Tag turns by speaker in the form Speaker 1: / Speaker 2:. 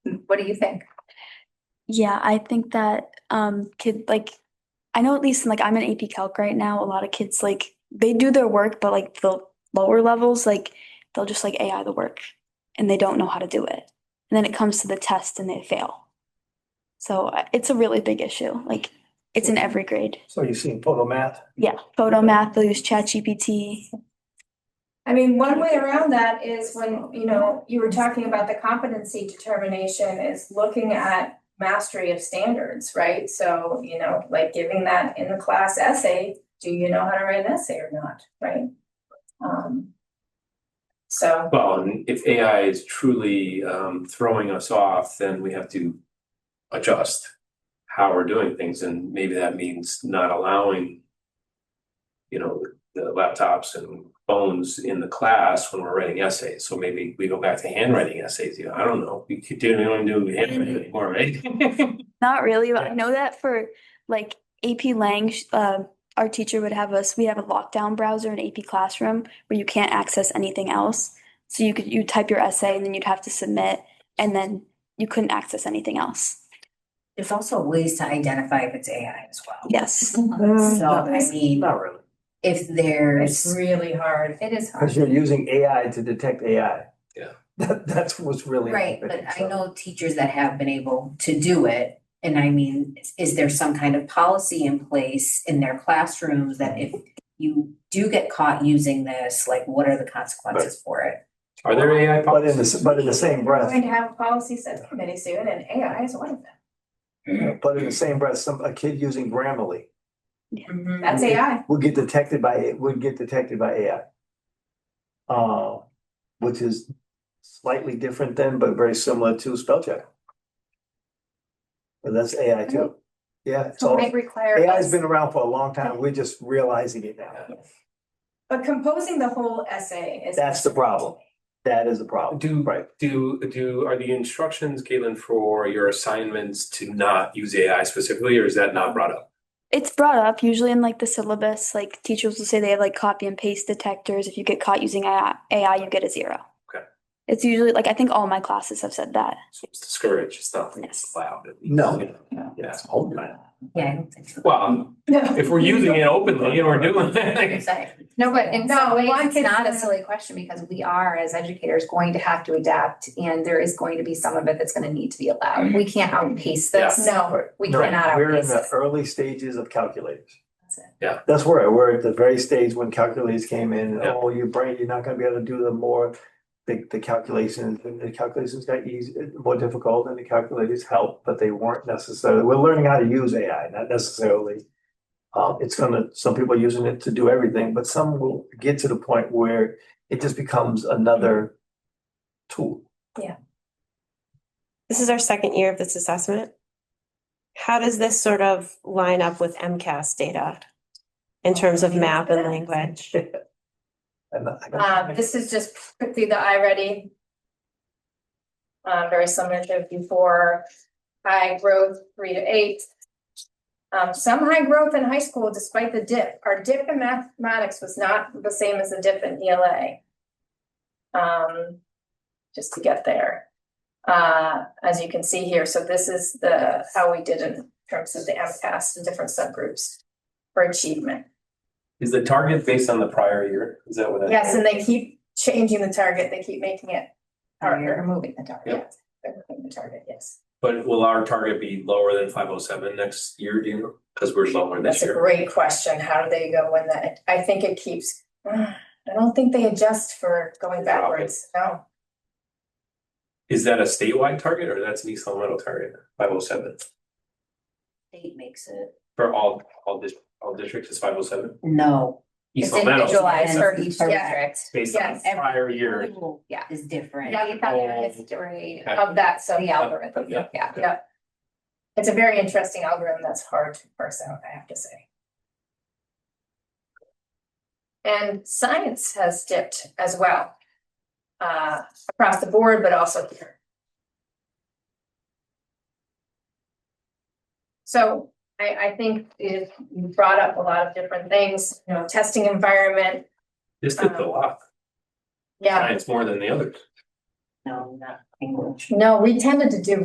Speaker 1: What do you think?
Speaker 2: Yeah, I think that um kid like I know at least in, like I'm an AP Calc right now. A lot of kids like they do their work, but like the lower levels, like they'll just like AI the work and they don't know how to do it. And then it comes to the test and they fail. So uh, it's a really big issue. Like it's in every grade.
Speaker 3: So you see photo math,
Speaker 2: Yeah, photo math, they'll use ChatGPT.
Speaker 4: I mean, one way around that is when, you know, you were talking about the competency determination is looking at mastery of standards, right? So, you know, like giving that in the class essay, do you know how to write an essay or not, right? Um. So,
Speaker 5: Well, and if AI is truly um throwing us off, then we have to adjust how we're doing things, and maybe that means not allowing you know, the laptops and phones in the class when we're writing essays, so maybe we go back to handwriting essays, you know, I don't know, we could do, we don't do handwriting anymore, right?
Speaker 2: Not really, but I
Speaker 3: Yeah.
Speaker 2: know that for like AP Lang, sh- uh, our teacher would have us, we have a lockdown browser in AP Classroom where you can't access anything else. So you could, you type your essay and then you'd have to submit and then you couldn't access anything else.
Speaker 6: There's also ways to identify if it's AI as well.
Speaker 2: Yes.
Speaker 1: Mm-hmm.
Speaker 6: So I mean,
Speaker 3: not really,
Speaker 6: if
Speaker 4: it's
Speaker 6: there's,
Speaker 4: really hard, it is hard.
Speaker 3: because you're using AI to detect AI.
Speaker 5: Yeah.
Speaker 3: That, that's what's really.
Speaker 6: right, but
Speaker 3: happening,
Speaker 6: I
Speaker 3: so.
Speaker 6: know teachers that have been able to do it. And I mean, is- is there some kind of policy in place in their classrooms that if you do get caught using this, like what are the consequences for it?
Speaker 5: Are there AI
Speaker 3: But in the,
Speaker 5: policies?
Speaker 3: s- but in the same
Speaker 4: We're going
Speaker 3: breath,
Speaker 4: to have a policy subcommittee soon and AI is one of them.
Speaker 3: but in the same breath, some, a kid using Grammarly
Speaker 1: Mm-hmm.
Speaker 3: Mm-hmm.
Speaker 6: Uh,
Speaker 4: That's AI.
Speaker 3: would get detected by, would get detected by AI. Uh, which is slightly different than, but very similar to spell check. But that's AI
Speaker 6: Mm-hmm.
Speaker 3: too. Yeah, it's all,
Speaker 4: Might require
Speaker 3: AI's
Speaker 4: us-
Speaker 3: been around for a long time. We're just realizing it now.
Speaker 4: But composing the whole essay is.
Speaker 3: That's the problem. That is the problem.
Speaker 5: Do-
Speaker 3: Right.
Speaker 5: Do do are the instructions, Caitlin, for your assignments to not use AI specifically, or is that not brought up?
Speaker 2: It's brought up usually in like the syllabus, like teachers will say they have like copy and paste detectors. If you get caught using AI, AI, you get a zero.
Speaker 5: Okay.
Speaker 2: It's usually like, I think all my classes have said that.
Speaker 5: So it's discouraged, it's not
Speaker 2: Yes.
Speaker 5: allowed. at least,
Speaker 3: No.
Speaker 5: you know? Yes.
Speaker 6: Yeah, I don't think so.
Speaker 5: Well, um, if we're using it openly and we're doing it,
Speaker 6: Exactly.
Speaker 1: No, but in
Speaker 4: No,
Speaker 1: some ways,
Speaker 4: one
Speaker 1: it's
Speaker 4: can-
Speaker 1: not a silly question because we are, as educators, going to have to adapt and there is going to be some of it that's gonna need to be allowed. We can't outpace this.
Speaker 4: No,
Speaker 1: We
Speaker 3: No,
Speaker 1: cannot
Speaker 3: We're in
Speaker 1: outpace
Speaker 3: the
Speaker 1: this.
Speaker 3: early stages of calculators.
Speaker 1: That's it.
Speaker 5: Yeah.
Speaker 3: That's where, we're at the very stage when calculators came in, and,
Speaker 5: Yeah.
Speaker 3: oh, your brain, you're not gonna be able to do the more. The, the calculations, and the calculations got easy, more difficult and the calculators helped, but they weren't necessarily, we're learning how to use AI, not necessarily. Uh, it's gonna, some people are using it to do everything, but some will get to the point where it just becomes another tool.
Speaker 7: This is our second year of this assessment. How does this sort of line up with MCAS data in terms of map and language?
Speaker 3: And I-
Speaker 4: um, this is just quickly the I ready. Um, very similar to before, high growth, three to eight. Um, some high growth in high school despite the dip, our dip in mathematics was not the same as the dip in ELA. Um, just to get there. Uh, as you can see here, so this is the, how we did in terms of the MCAS and different subgroups for achievement.
Speaker 5: is the target based on the prior year? Is that what that?
Speaker 4: Yes, and they keep changing the target, they keep making it
Speaker 1: Or
Speaker 4: harder.
Speaker 1: removing the dark.
Speaker 5: Yep.
Speaker 4: They're moving the target, yes.
Speaker 5: But will our target be lower than five oh seven next year, do you know? Because we're lower this
Speaker 4: That's a
Speaker 5: year.
Speaker 4: great question, how do they go in that, I think it keeps, I don't think they adjust for going backwards, no.
Speaker 5: Is that a statewide target or that's an East Long Meadow target, five oh seven?
Speaker 6: State makes it,
Speaker 5: For all all dis- all districts is five oh seven?
Speaker 6: no.
Speaker 5: East Long Meadow,
Speaker 1: individualized for
Speaker 6: Yeah.
Speaker 1: each district.
Speaker 5: based on
Speaker 4: yes,
Speaker 5: the prior year,
Speaker 6: School
Speaker 1: Yeah.
Speaker 6: Is different.
Speaker 1: Yeah, you thought there was
Speaker 5: Oh.
Speaker 1: history
Speaker 5: Okay.
Speaker 4: Of that, so,
Speaker 1: of the algorithm.
Speaker 5: Yeah.
Speaker 1: Yeah.
Speaker 4: yeah. It's a very interesting algorithm that's hard to parse out, I have to say. And science has dipped as well. Uh, across the board, but also here. So I, I think it you brought up a lot of different things, you know, testing environment,
Speaker 5: this did a lot,
Speaker 4: yeah.
Speaker 5: science more than the others.
Speaker 6: No, not English.
Speaker 4: No, we tended to do